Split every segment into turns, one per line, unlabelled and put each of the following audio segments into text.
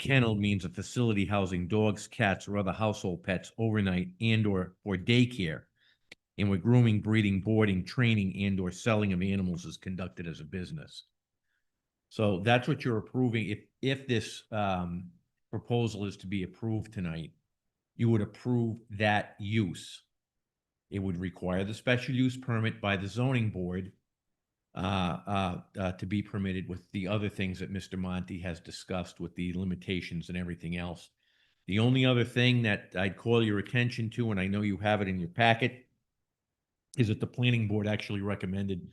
Kennel means a facility housing dogs, cats, or other household pets overnight and or for daycare. And where grooming, breeding, boarding, training, and or selling of animals is conducted as a business. So that's what you're approving. If, if this, um, proposal is to be approved tonight, you would approve that use. It would require the special use permit by the zoning board uh, uh, uh, to be permitted with the other things that Mr. Monty has discussed with the limitations and everything else. The only other thing that I'd call your attention to, and I know you have it in your packet, is that the planning board actually recommended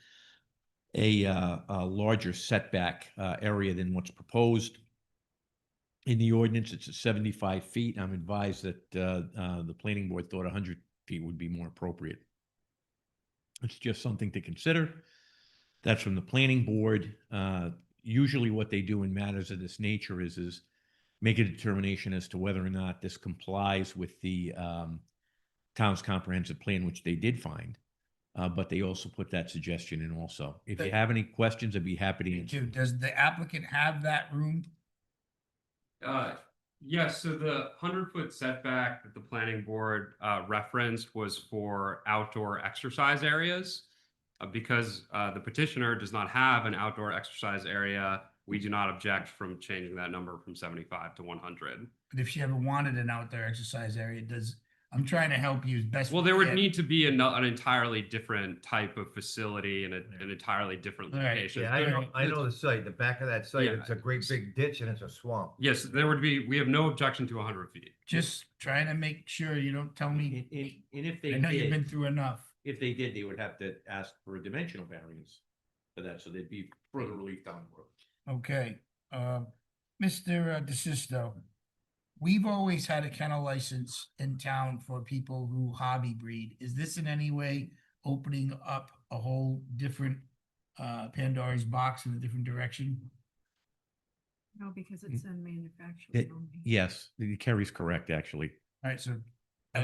a, uh, a larger setback, uh, area than what's proposed. In the ordinance, it's at seventy-five feet. I'm advised that, uh, uh, the planning board thought hundred feet would be more appropriate. It's just something to consider. That's from the planning board. Uh, Usually what they do in matters of this nature is, is make a determination as to whether or not this complies with the um, town's comprehensive plan, which they did find. Uh, But they also put that suggestion in also. If you
Thank-
have any questions, I'd be happy to answer.
Two, does the applicant have that room?
Uh, yes, so the hundred foot setback that the planning board uh referenced was for outdoor exercise areas. Uh, because uh the petitioner does not have an outdoor exercise area, we do not object from changing that number from seventy-five to one hundred.
But if she ever wanted an outdoor exercise area, does, I'm trying to help you as best.
Well,
we
there would
can.
need to be an an entirely different type of facility and a- an entirely different
All right,
location.
Yeah, I
There-
know, I
the-
know the site, the back of that site,
Yeah.
it's a great big ditch and it's a swamp.
Yes, there would be, we have no objection to hundred feet.
Just trying to make sure you don't tell
And,
me,
and- and if they
I know you've been
did,
through enough.
if they did, they would have to ask for a dimensional variance for that, so there'd be further relief down the road.
Okay, uh, Mr. DeSisto, we've always had a kennel license in town for people who hobby breed. Is this in any way opening up a whole different uh Pandora's box in a different direction?
No, because it's in manufacturing
It-
only.
Yes, Carrie's correct, actually.
All right, so
That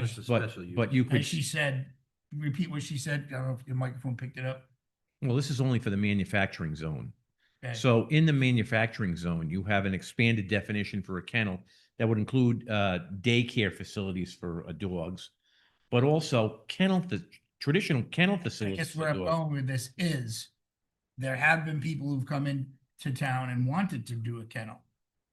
as-
was the
But,
special use.
but you
as
could,
she said, repeat what she said. I don't know if your microphone picked it up.
well, this is only for the manufacturing zone.
Okay.
So in the manufacturing zone, you have an expanded definition for a kennel that would include uh, daycare facilities for uh, dogs, but also kennel, fa- traditional kennel
I
facilities
guess where
for
I'm
dogs.
going with this is, there have been people who've come in to town and wanted to do a kennel.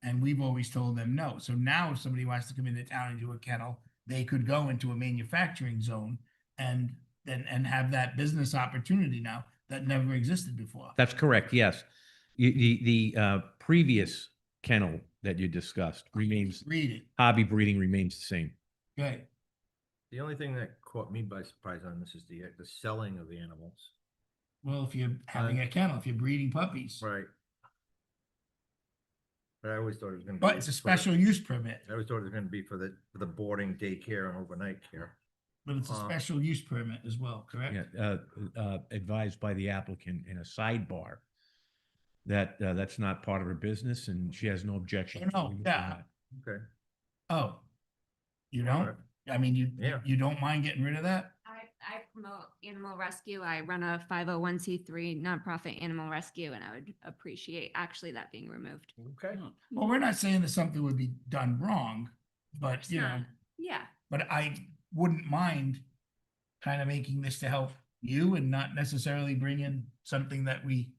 And we've always told them no. So now if somebody wants to come into town and do a kennel, they could go into a manufacturing zone and and, and have that business opportunity now that never existed before.
That's correct, yes. You- The, the uh, previous kennel that you discussed remains,
Read it.
hobby breeding remains the same.
Okay.
The only thing that caught me by surprise on this is the, the selling of the animals.
Well, if you're having a kennel, if you're breeding puppies,
Right. But I always thought it was gonna.
but
be
it's a
for the-
special use permit,
I always thought it was gonna be for the, for the boarding, daycare and overnight care.
but it's a
Uh,
special use permit as well, correct?
Yeah, uh, uh, advised by the applicant in a sidebar that uh, that's not part of her business and she has no objection.
Oh, no,
to
yeah.
that.
Okay.
Oh. You
all
don't?
right.
I mean, you,
Yeah.
you don't mind getting rid of that?
I, I promote animal rescue. I run a five oh one C three nonprofit animal rescue and I would appreciate actually that being removed.
Okay.
Well, we're not saying that something would be done wrong, but
It's
you know,
not. Yeah,
but I wouldn't mind kind of making this to help you and not necessarily bring in something that we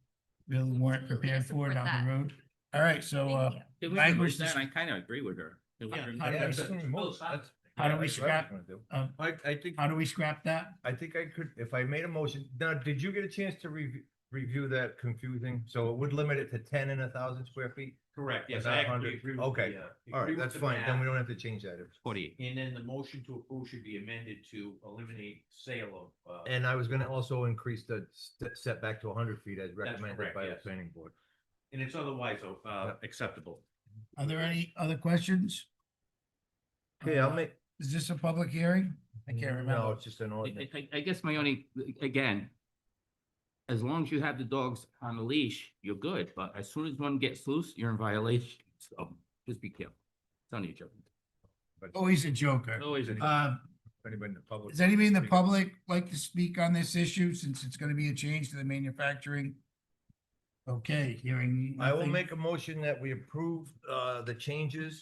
really weren't
Absolutely, I
prepared for
support
down
that.
the road. All right, so
thank
uh,
you.
Did we
language
remove
dis-
that? I kind of agree with her. Did we
Yeah,
remove
how do
that?
we
That's-
s-
that's- that's-
How do
yeah,
we
that's what I was
scrap-
gonna do.
uh,
I, I think,
how do we scrap that?
I think I could, if I made a motion, now, did you get a chance to review, review that confusing? So it would limit it to ten and a thousand square feet?
Correct,
yes, I actually agree with Okay, All right, that's fine, then we don't have to change that.
Forty.
And then the motion to approve should be amended to eliminate sale of. uh,
And I was gonna also increase the st- setback to hundred feet as recommended
correct,
by the
yes.
planning board.
And it's otherwise uh, acceptable.
Are there any other questions?
Okay, I'll
Uh,
make.
Is this a public hearing? I can't
No,
remember.
it's just an
I-
ordinance.
I, I- I guess my only, again, as long as you have the dogs on the leash, you're good, but as soon as one gets loose, you're in violation, so just be careful. It's only a joke.
but if
Always Oh, a joker.
Always a-
Uh,
Anybody in the public?
Does anybody in the
speak-
public like to speak on this issue since it's gonna be a change to the manufacturing? Okay, hearing.
I will
nothing.
make a motion that we approve, uh, the changes